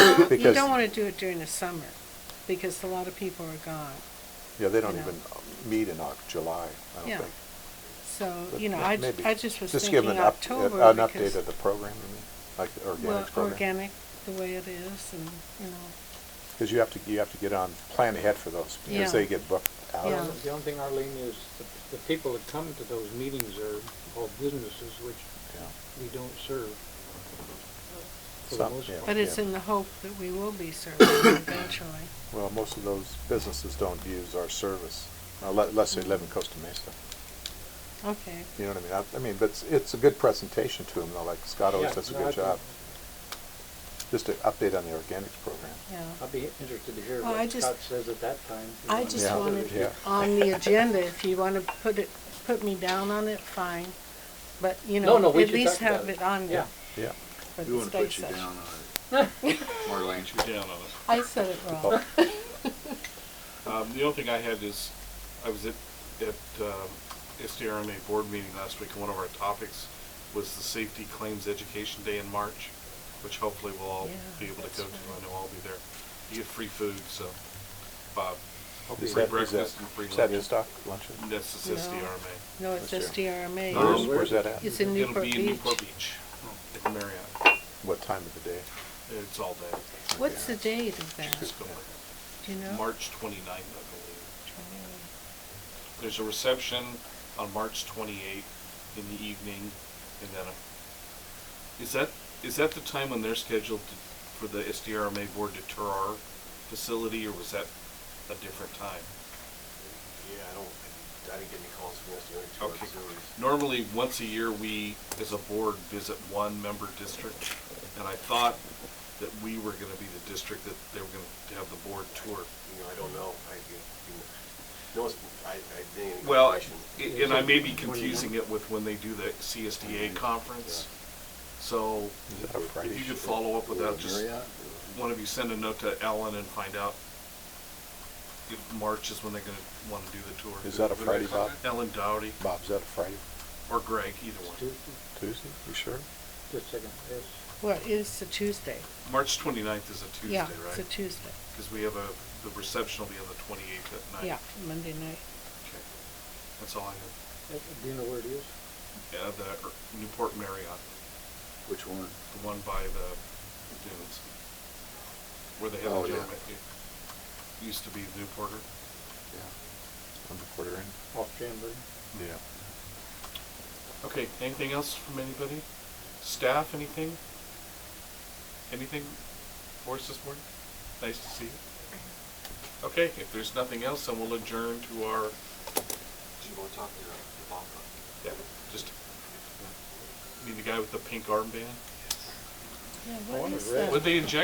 You because, don't want to do it during the summer, because a lot of people are gone. yeah, they don't you know. even meet in Oc- July, I Yeah. don't think. So, But you know, may- I, maybe. I just was Just give them thinking an up- uh, October because. An update of the program, you mean, like the Well, organics program? organic, the way it is, and, you know, Because you have to, you have to get on, plan ahead for those, Yeah. because they get booked Yeah. out. The only thing, Arlene, is the- the people that come to those meetings are all businesses which Yeah. we don't serve. For the Some- most Oh, yeah. part. but it's in the hope that we will be serving eventually. Well, most of those businesses don't use our service, uh, unle- unless they live in Costa Mesa. Okay, You know what I mean? I- I mean, but it's, it's a good presentation to them, though, like Scott always Yeah, does a no, I good think- job. Just an update on the organics program. yeah. I'd be interested to hear Well, I what just- Scott says at that time. you I know, just Yeah. whether wanted it's- Yeah. on the agenda, if you want to put it, put me down on it, fine, but, you No, know, no, we at should least talk about have it. it on there Yeah. Yeah. for We the want to study put you session. down on it. Marlene, you're down on it. I said it wrong. Um, the only thing I had is, I was at, at, um, SDRMA board meeting last week, and one of our topics was the Safety Claims Education Day in March, which hopefully we'll all Yeah, be able to that's go to. right. I know I'll be there. You get free food, so, Is Bob, free that- is that- breakfast and free Is that his lunch. doc, luncheon? And that's the No. SDRMA. No, That's it's just true. DRMA. Um, Where's, where- where's that at? It's in It'll Newport be in Newport Beach. Beach, at the Marriott. What time of the day? It's all day. What's the date of that? It's going. Do you know? March twenty-ninth, I believe. There's a reception on March 28th in the evening, and then a, is that is that the time when they're scheduled to, for the SDRMA board to tour our facility, or was that a different time? Yeah, I don't, I didn't get any calls from yesterday. Okay. Normally, once a year, we as a board visit one member district, and I thought that we were going to be the district that they were going to have the board tour. You know, I don't know. I, you know, no, it's- I, I didn't. get any Well, confirmation. i- and I may be confusing it with when they do the CSDA conference. So Is that a Friday? if you could show? follow up with that, just Marriott? one of you send a note to Ellen and find out if March is when they're gonna wanna do the tour. Is that a Friday, Bob? Ellen Dowdy Bob, is that a Friday, or Greg, either it's one. Tuesday. Tuesday? You sure? Just a second. Yes. What, it's a Tuesday? March twenty-ninth is a Tuesday, Yeah, it's a right? Tuesday. Because we have a, the reception will be on the twenty-eighth at night. Yeah, Monday night. Okay. That's all I Uh, Do you know where it is? have. Yeah, the er, Newport Marriott, Which one? the one by the dunes. Where they have Oh, the yeah. gentleman, it used to be Newporter. Number quarter in? Off Jamboree? Yeah. Okay, anything else from anybody? Staff, anything? Anything for us this morning? Nice to see you. Okay, if there's nothing else, then we'll adjourn to our, Do you want to talk to the the Bob? yeah, just, need the guy with the pink armband? Yeah, I what wonder is if- that? Would they inject